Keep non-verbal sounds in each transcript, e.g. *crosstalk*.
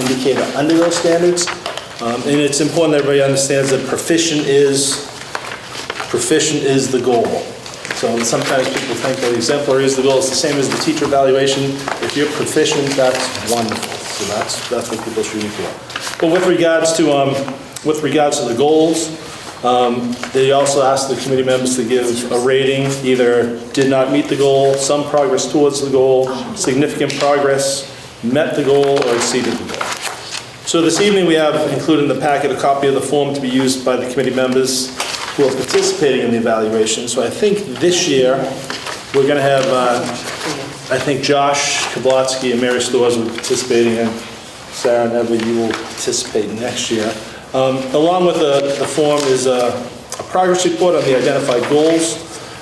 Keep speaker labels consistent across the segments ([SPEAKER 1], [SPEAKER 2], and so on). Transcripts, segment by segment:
[SPEAKER 1] indicator under those standards. Um, And it's important that everybody understands that proficient is, proficient is the goal. So sometimes people think that exemplary is the goal, it's the same as the teacher evaluation. If you're proficient, that's wonderful, so that's, that's what people should be for. But with regards to, um, with regards to the goals, they also asked the committee members to give a rating, either did not meet the goal, some progress towards the goal, significant progress, met the goal, or exceeded the goal. So this evening, we have included in the packet a copy of the form to be used by the committee members who are participating in the evaluation. So I think this year, we're going to have, uh, I think Josh Kablotsky and Mary Stores will be participating, and Sarah and Evan, you will participate next year. Um, Along with the the form is a a progress report on the identified goals.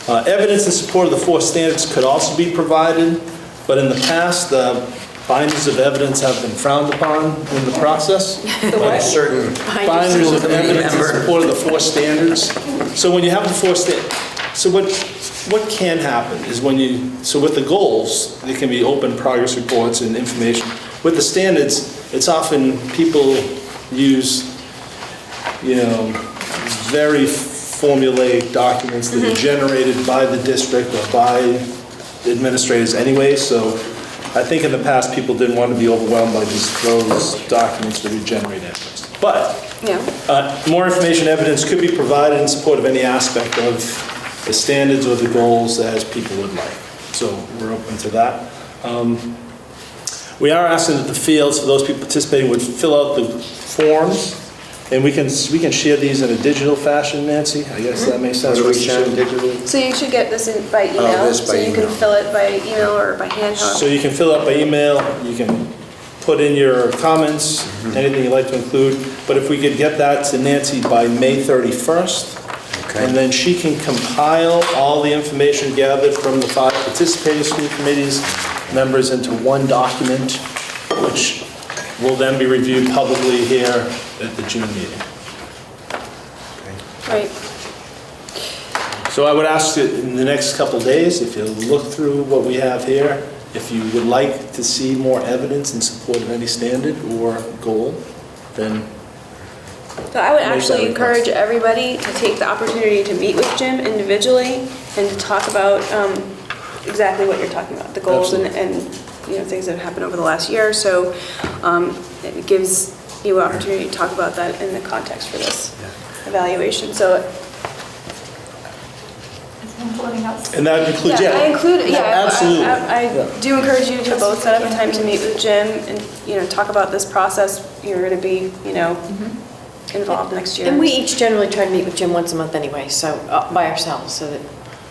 [SPEAKER 1] Uh, Evidence in support of the four standards could also be provided, but in the past, uh, binders of evidence have been frowned upon in the process.
[SPEAKER 2] Certain.
[SPEAKER 1] Binders of evidence in
[SPEAKER 2] Remember.
[SPEAKER 1] support of the four standards. So when you have the four sta, so what, what can happen is when you, so with the goals, there can be open progress reports and information. With the standards, it's often people use, you know, very formulaic documents that are generated by the district or by administrators anyway, so I think in the past, people didn't want to be overwhelmed by these, those documents that we generate evidence. But
[SPEAKER 3] Yeah,
[SPEAKER 1] uh, More information, evidence could be provided in support of any aspect of the standards or the goals as people would like. So we're open to that. Um, We are asking that the fields, for those people participating, would fill out the forms, and we can, we can share these in a digital fashion, Nancy? I guess that makes sense.
[SPEAKER 2] Are we sharing digitally?
[SPEAKER 3] so you should get this in by
[SPEAKER 2] Oh,
[SPEAKER 3] email,
[SPEAKER 2] this by
[SPEAKER 3] so you can
[SPEAKER 2] email.
[SPEAKER 3] fill it by email or by
[SPEAKER 1] So
[SPEAKER 3] handheld.
[SPEAKER 1] you can fill out by email, you can put in your comments, anything you'd like to include, but if we could get that to Nancy by May 31st,
[SPEAKER 2] Okay.
[SPEAKER 1] and then she can compile all the information gathered from the five participating school committees members into one document, which will then be reviewed publicly here at the June meeting.
[SPEAKER 3] Right,
[SPEAKER 1] So I would ask that in the next couple of days, if you look through what we have here, if you would like to see more evidence in support of any standard or goal, then
[SPEAKER 3] so I would
[SPEAKER 1] Make that
[SPEAKER 3] actually
[SPEAKER 1] request.
[SPEAKER 3] encourage everybody to take the opportunity to meet with Jim individually and to talk about um, exactly what you're talking about, the goals and, and, you know, things that have happened over the last year, so um, it gives you an opportunity to talk about that in the context for this evaluation, so
[SPEAKER 1] and that would include, yeah.
[SPEAKER 3] I include, yeah. I- I-
[SPEAKER 1] Absolutely.
[SPEAKER 3] I I do encourage you to both set up a time to meet with Jim and, you know, talk about this process. You're going to be, you know, involved next year.
[SPEAKER 4] And we each generally try to meet with Jim once a month anyway, so, uh, by ourselves, so that,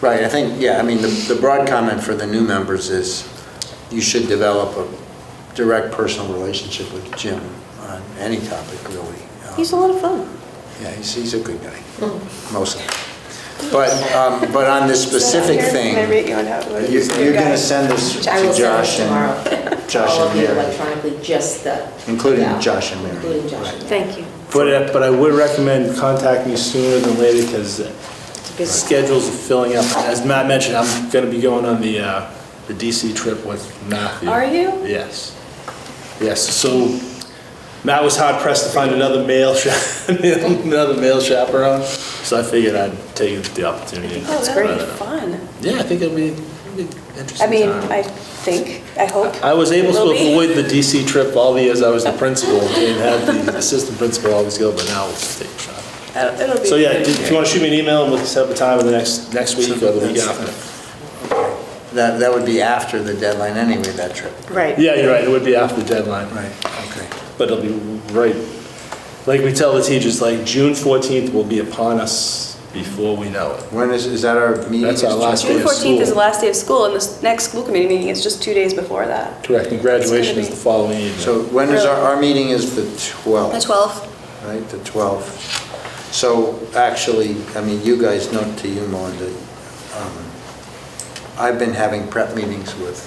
[SPEAKER 2] Right, I think, yeah, I mean, the, the broad comment for the new members is you should develop a direct personal relationship with Jim on any topic, really. Um,
[SPEAKER 4] he's a lot of fun.
[SPEAKER 2] Yeah, he's, he's a good guy,
[SPEAKER 5] Mm.
[SPEAKER 2] most of them. But, um, but on this specific thing. uh,
[SPEAKER 3] Can I rate you on how? what
[SPEAKER 2] You-
[SPEAKER 3] you say,
[SPEAKER 2] You're going to
[SPEAKER 3] guys?
[SPEAKER 2] send this to
[SPEAKER 5] I will send this
[SPEAKER 2] Josh and,
[SPEAKER 5] tomorrow.
[SPEAKER 2] Josh
[SPEAKER 5] All of
[SPEAKER 2] and
[SPEAKER 5] you
[SPEAKER 2] Mary.
[SPEAKER 5] electronically, just the.
[SPEAKER 2] Including
[SPEAKER 5] yeah,
[SPEAKER 2] Josh and Mary,
[SPEAKER 5] Including Josh
[SPEAKER 2] right.
[SPEAKER 5] and Mary.
[SPEAKER 4] Thank you.
[SPEAKER 1] But, uh, but I would recommend contact me sooner than later because
[SPEAKER 4] busy-
[SPEAKER 1] schedules are filling up. As Matt mentioned, I'm going to be going on the, uh, the DC trip with Matthew.
[SPEAKER 3] Are you?
[SPEAKER 1] Yes. Yes, so Matt was hard pressed to find another male, cha- *laughs* another male chaperone, so I figured I'd take the opportunity.
[SPEAKER 3] Oh,
[SPEAKER 1] to
[SPEAKER 3] that would
[SPEAKER 1] try
[SPEAKER 3] be
[SPEAKER 1] that out.
[SPEAKER 3] fun.
[SPEAKER 1] Yeah, I think it'll be, it'll be an interesting.
[SPEAKER 3] I mean,
[SPEAKER 1] time.
[SPEAKER 3] I think, I hope.
[SPEAKER 1] I was able to
[SPEAKER 3] Will be.
[SPEAKER 1] avoid the DC trip all the years I was the principal, and had the assistant principal always go, but now we'll just take a shot.
[SPEAKER 3] It'll Uh, it'll be.
[SPEAKER 1] So yeah, if you want to shoot me an email, and we'll set up a time in the next, next week or the week after.
[SPEAKER 2] that, that would be after the deadline anyway, that trip.
[SPEAKER 4] Right.
[SPEAKER 1] Yeah, you're right, it would be after the deadline.
[SPEAKER 2] Right, okay.
[SPEAKER 1] But it'll be right, like we tell the teachers, like June 14th will be upon us before we know it.
[SPEAKER 2] When is, is that our meeting?
[SPEAKER 1] That's our last
[SPEAKER 3] June
[SPEAKER 1] day of
[SPEAKER 3] 14th is the
[SPEAKER 1] school.
[SPEAKER 3] last day of school and the next school committee meeting is just two days before that.
[SPEAKER 1] Correct, and graduation is the following evening.
[SPEAKER 2] So when is our, our meeting is the 12th?
[SPEAKER 3] The 12th.
[SPEAKER 2] Right, the 12th. So actually, I mean, you guys know to you, Melinda, um, I've been having prep meetings with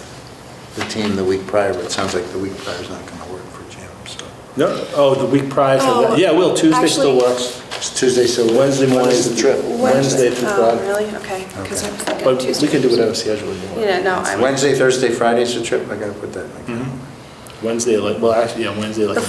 [SPEAKER 2] the team the week prior, but it sounds like the week prior is not going to work for Jim, so.
[SPEAKER 1] No, oh, the week prior to
[SPEAKER 3] Oh,
[SPEAKER 1] that, yeah, well, Tuesday still
[SPEAKER 3] actually-
[SPEAKER 1] works.
[SPEAKER 2] It's Tuesday, so
[SPEAKER 1] Wednesday morning
[SPEAKER 2] is the trip.
[SPEAKER 1] Wednesday through
[SPEAKER 3] Oh,
[SPEAKER 1] Friday.
[SPEAKER 3] really? Okay. 'Cause I was thinking
[SPEAKER 1] But we
[SPEAKER 3] Tuesday.
[SPEAKER 1] can do whatever schedule you want.
[SPEAKER 3] Yeah, no, I'm.
[SPEAKER 2] Wednesday, Thursday, Friday's the trip, I got to put that in my calendar.
[SPEAKER 1] Wednesday, like, well, actually, yeah, Wednesday, like.
[SPEAKER 3] The